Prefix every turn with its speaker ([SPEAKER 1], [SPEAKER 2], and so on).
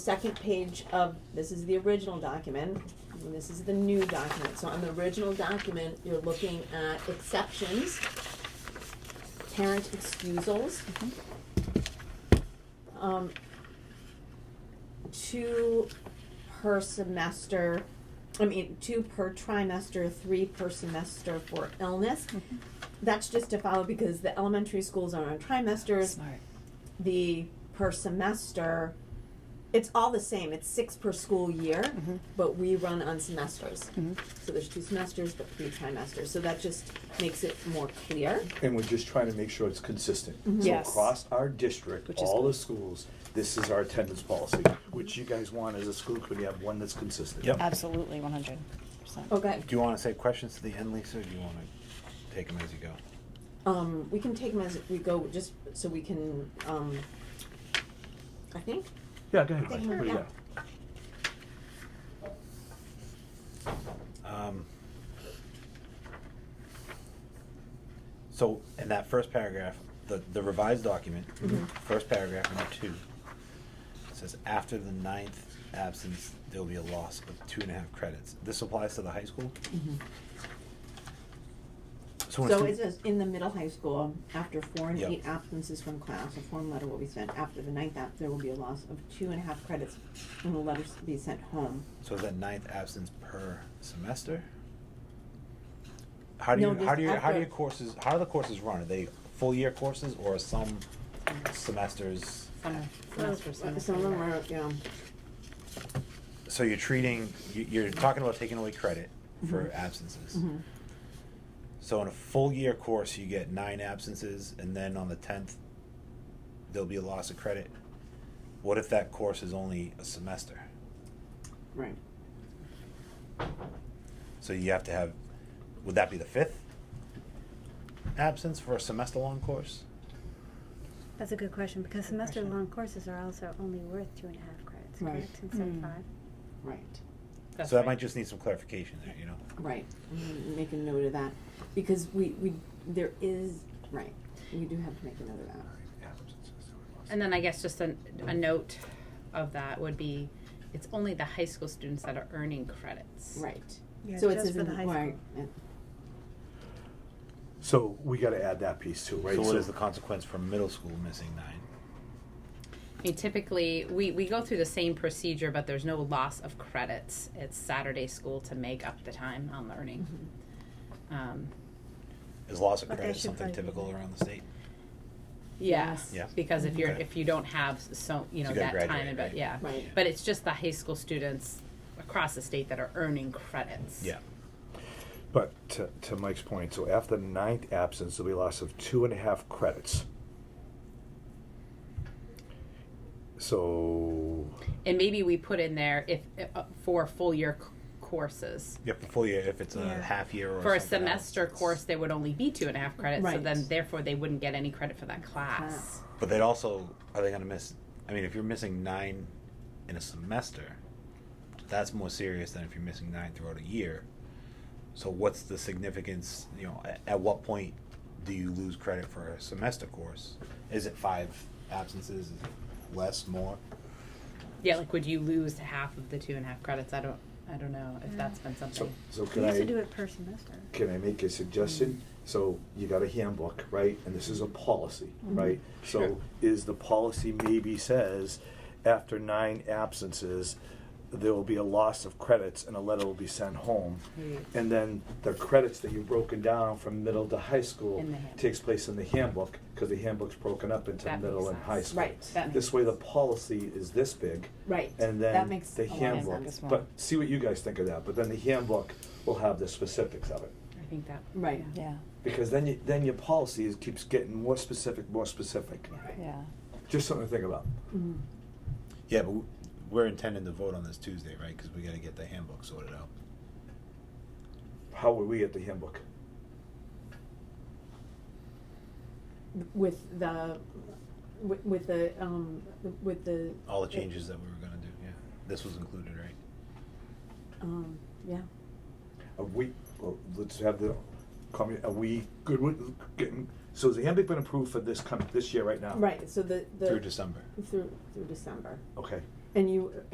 [SPEAKER 1] second page of, this is the original document, and this is the new document. So on the original document, you're looking at exceptions, parent excusals. Um, two per semester, I mean, two per trimester, three per semester for illness. That's just to follow because the elementary schools are on trimesters,
[SPEAKER 2] Smart.
[SPEAKER 1] the per semester it's all the same it's six per school year but we run on semesters so there's two semesters but three trimesters so that just makes it more clear
[SPEAKER 3] And we're just trying to make sure it's consistent. So
[SPEAKER 2] Yes.
[SPEAKER 3] across our district,
[SPEAKER 2] Which is
[SPEAKER 3] all the
[SPEAKER 2] good.
[SPEAKER 3] schools, this is our attendance policy, which you guys want as a school committee, have one that's consistent.
[SPEAKER 4] Yep.
[SPEAKER 2] Absolutely, one hundred percent.
[SPEAKER 1] okay
[SPEAKER 4] Do you want to say questions to the end, Lisa, or do you want to take them as you go?
[SPEAKER 1] um, we can take them as we go just so we can um, i think
[SPEAKER 3] Yeah, go ahead.
[SPEAKER 1] Thank
[SPEAKER 3] Mike.
[SPEAKER 1] you.
[SPEAKER 3] What do you
[SPEAKER 1] Yeah.
[SPEAKER 3] got?
[SPEAKER 4] Um, So in that first paragraph, the, the revised document,
[SPEAKER 1] Mm-hmm.
[SPEAKER 4] first paragraph, number two, it says after the ninth absence, there'll be a loss of two and a half credits. This applies to the high school? So when a
[SPEAKER 1] Mm-hmm. so it
[SPEAKER 4] student-
[SPEAKER 1] says in the middle high school after four and
[SPEAKER 4] Yeah.
[SPEAKER 1] eight absences from class a form letter will be sent after the ninth app there will be a loss of two and a half credits and the letters be sent home
[SPEAKER 4] So is that ninth absence per semester? How do
[SPEAKER 1] No,
[SPEAKER 4] you,
[SPEAKER 1] there's
[SPEAKER 4] how do you, how
[SPEAKER 1] after-
[SPEAKER 4] do your courses, how do the courses run? Are they full year courses or some semesters?
[SPEAKER 2] Summer, semester,
[SPEAKER 1] some
[SPEAKER 2] summer.
[SPEAKER 1] of them are you know
[SPEAKER 4] So you're treating, you, you're talking about taking away credit for absences.
[SPEAKER 1] Mm-hmm.
[SPEAKER 4] So in a full year course, you get nine absences and then on the tenth, there'll be a loss of credit. What if that course is only a semester?
[SPEAKER 1] right
[SPEAKER 4] So you have to have, would that be the fifth absence for a semester long course?
[SPEAKER 5] That's a good question, because semester-long courses are also only worth two and a half credits,
[SPEAKER 1] Right.
[SPEAKER 5] correct, instead of
[SPEAKER 2] Mm.
[SPEAKER 5] five?
[SPEAKER 1] right
[SPEAKER 2] That's
[SPEAKER 4] so that
[SPEAKER 2] right.
[SPEAKER 4] might just need some clarification there, you know?
[SPEAKER 1] Right, I'm gonna make a note of that, because we, we, there is, right, we do have to make a note of that.
[SPEAKER 2] And then I guess just a, a note of that would be, it's only the high school students that are earning credits.
[SPEAKER 1] Right.
[SPEAKER 5] Yeah,
[SPEAKER 1] So it
[SPEAKER 5] just
[SPEAKER 1] says
[SPEAKER 5] for
[SPEAKER 1] in
[SPEAKER 5] the high
[SPEAKER 1] right, uh,
[SPEAKER 3] So we gotta add that piece too, right?
[SPEAKER 4] So what is the consequence for middle school missing nine?
[SPEAKER 2] I mean, typically, we, we go through the same procedure, but there's no loss of credits. It's Saturday school to make up the time on learning.
[SPEAKER 1] Mm-hmm.
[SPEAKER 2] Um,
[SPEAKER 4] Is loss of
[SPEAKER 5] But that
[SPEAKER 4] credit
[SPEAKER 5] should
[SPEAKER 4] something
[SPEAKER 5] probably be
[SPEAKER 4] typical
[SPEAKER 5] there.
[SPEAKER 4] around the state?
[SPEAKER 2] yes,
[SPEAKER 4] Yeah.
[SPEAKER 2] because if you're,
[SPEAKER 4] Okay.
[SPEAKER 2] if you don't have so, you
[SPEAKER 4] Mm-hmm. So
[SPEAKER 2] know,
[SPEAKER 4] you
[SPEAKER 2] that time,
[SPEAKER 4] gotta graduate,
[SPEAKER 2] but
[SPEAKER 4] right?
[SPEAKER 2] yeah.
[SPEAKER 1] Right.
[SPEAKER 2] But it's just the high school students across the state that are earning credits.
[SPEAKER 4] Yeah.
[SPEAKER 3] But to, to Mike's point, so after the ninth absence, there'll be a loss of two and a half credits. So,
[SPEAKER 2] And maybe we put in there if, uh, for full year c- courses.
[SPEAKER 4] You have to full year if it's a
[SPEAKER 5] Yeah.
[SPEAKER 4] half year or
[SPEAKER 2] For a
[SPEAKER 4] something else,
[SPEAKER 2] semester
[SPEAKER 4] it's-
[SPEAKER 2] course, there would only be two and a half credits, so
[SPEAKER 1] Right.
[SPEAKER 2] then therefore they wouldn't get any credit for that class.
[SPEAKER 4] But they'd also, are they gonna miss, I mean, if you're missing nine in a semester, that's more serious than if you're missing nine throughout a year. So what's the significance, you know, at, at what point do you lose credit for a semester course? Is it five absences, is it less, more?
[SPEAKER 2] Yeah, like would you lose half of the two and a half credits? I don't, I don't know if that's been
[SPEAKER 3] so,
[SPEAKER 2] something.
[SPEAKER 3] so
[SPEAKER 5] We
[SPEAKER 3] can I?
[SPEAKER 5] used to do it per semester.
[SPEAKER 3] can I make a suggestion? So you got a handbook, right? And this is a policy,
[SPEAKER 2] Mm-hmm.
[SPEAKER 3] right?
[SPEAKER 4] Sure.
[SPEAKER 3] So is the policy maybe says after nine absences, there will be a loss of credits and a letter will be sent home. And then the credits that you've broken down from middle to high school
[SPEAKER 2] In the handbook.
[SPEAKER 3] takes place in the handbook because the handbook's broken up into
[SPEAKER 2] That
[SPEAKER 3] middle
[SPEAKER 2] makes
[SPEAKER 3] and high
[SPEAKER 2] sense.
[SPEAKER 3] school.
[SPEAKER 1] Right.
[SPEAKER 2] That makes
[SPEAKER 3] This way the policy is this big.
[SPEAKER 1] right,
[SPEAKER 3] And then
[SPEAKER 1] that makes a
[SPEAKER 3] the
[SPEAKER 1] lot of
[SPEAKER 3] handbook,
[SPEAKER 1] sense.
[SPEAKER 3] but see what you guys think of that. But then the handbook will have the specifics of it
[SPEAKER 2] I think that.
[SPEAKER 1] Right.
[SPEAKER 2] yeah. Yeah.
[SPEAKER 3] because then you, then your policy is, keeps getting more specific, more specific.
[SPEAKER 2] Yeah.
[SPEAKER 3] Just something to think about.
[SPEAKER 1] Mhm.
[SPEAKER 4] Yeah, but w- we're intending to vote on this Tuesday, right? Because we got to get the handbook sorted out.
[SPEAKER 3] How were we at the handbook?
[SPEAKER 1] With the, with, with the, um, with the.
[SPEAKER 4] All the changes that we were going to do. Yeah, this was included, right?
[SPEAKER 1] Um, yeah,
[SPEAKER 3] Are we? Well, let's have the. Call me. Are we good with getting? So has the handbook been approved for this coming this year right now?
[SPEAKER 1] right, so the, the.
[SPEAKER 4] Through Oh. December. Oh.
[SPEAKER 1] Through, through December,
[SPEAKER 3] Okay.
[SPEAKER 1] and you